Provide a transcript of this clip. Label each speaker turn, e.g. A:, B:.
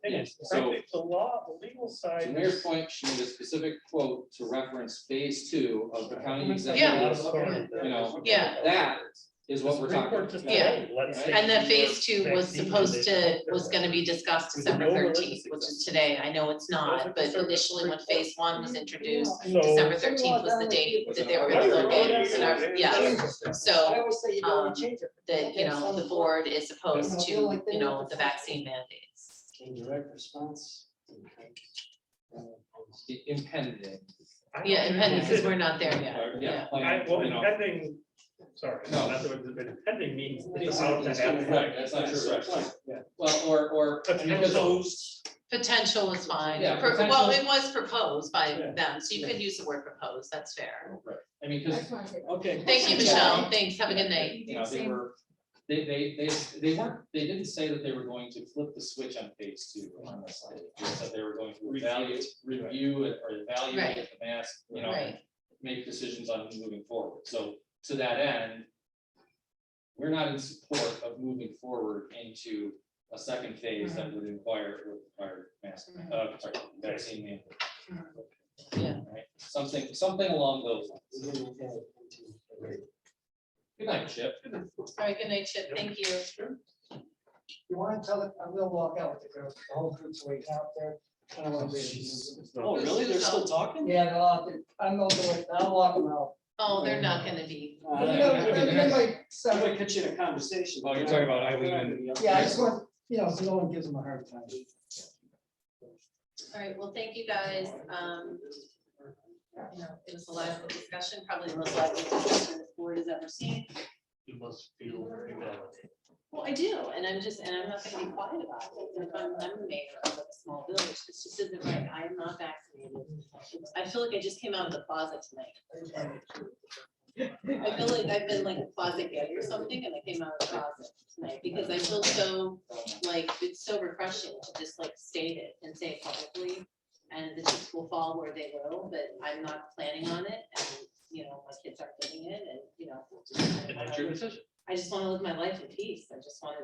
A: opinions.
B: So-
A: I think the law, the legal side.
B: To Mayor's
A: is-
B: point, she needs a specific quote to reference phase two of the county
A: Yeah.
B: executive's.
A: Authority.
B: You know,
C: Yeah.
B: That is
A: The
B: what we're
A: Supreme
B: talking
A: Court
B: about.
A: just
C: Yeah.
A: said, hey, let's say
C: And the
A: you
C: phase two
A: were
C: was
A: vaccine
C: supposed to,
A: mandate.
C: was gonna be discussed
A: There's no
C: December
A: religious
C: thirteenth, which is today, I know it's not, but initially when phase one
D: Mm-hmm.
C: was introduced,
D: Oh.
C: December thirteenth was the date that they were gonna look at, and our- yes,
E: I
C: so,
E: always say you
C: um,
E: don't change it.
C: that, you know, the board is opposed to, you know, the vaccine mandates.
D: In direct response. okay. Uh,
B: I- Impending.
A: I don't
C: Yeah,
A: think
C: impending,
A: we
C: because
A: should-
C: we're not there yet,
B: uh,
C: yeah.
B: Yeah. plan,
A: I, well,
B: you know.
A: impending, sorry,
B: No.
A: that's what, but impending means it's about to happen.
B: Right, that's not true.
D: Right,
B: right.
D: yeah.
B: Well, or, or.
A: That's
B: because-
A: proposed.
C: Potential was fine,
B: Yeah,
C: Pro- well,
B: potential.
C: it was proposed by
D: Yeah.
C: them, so you
D: Yeah.
C: could use the word proposed, that's fair.
B: Right. I mean, because
D: Okay.
C: Thank you, Michelle, thanks, have a good night.
B: You know, they were, they, they, they, they weren't, they didn't say that they were going to flip the switch on phase two on this. day. They said they were going to evaluate, review it or evaluate the mask, you know,
C: Right,
B: make decisions on moving forward. So to that end, we're not in support of moving forward into a second phase that would require, require mask, uh, sorry, vaccine mandate.
C: yeah.
B: right? Something, something along those lines.
D: We're gonna have it.
B: Good night, Chip.
C: All right, good night, Chip, thank you.
D: You wanna tell it, I will walk out with the girls, the whole group's waiting out there. I don't wanna be.
B: Oh,
C: really? They're still
B: talking?
D: Yeah, they're all, I'm going to, I'll walk them out.
C: Oh, they're not gonna be.
D: Uh, they're- they're like seven-
F: in a conversation.
B: Oh, you're talking about Eileen and.
D: Yeah, I just want, you know, so no one gives them a hard time.
C: All right, well, thank you guys. Um, you know, it was a lively discussion, probably the most lively discussion this board has ever seen.
A: You must feel invalidated.
C: Well, I do, and I'm just, and I'm not gonna be quiet about it. If I'm, I'm the mayor of a small village. This just isn't right. I am not vaccinated. I feel like I just came out of the closet tonight. I feel like I've been like a closet gay or something, and I came out of the closet tonight because I feel so like, it's so refreshing to just like state it and say it publicly. And the chips will fall where they will, but I'm not planning on it and, you know, my kids aren't getting it and, you know.
A: And that's your decision.
C: I just wanna live my life in peace. I just wanna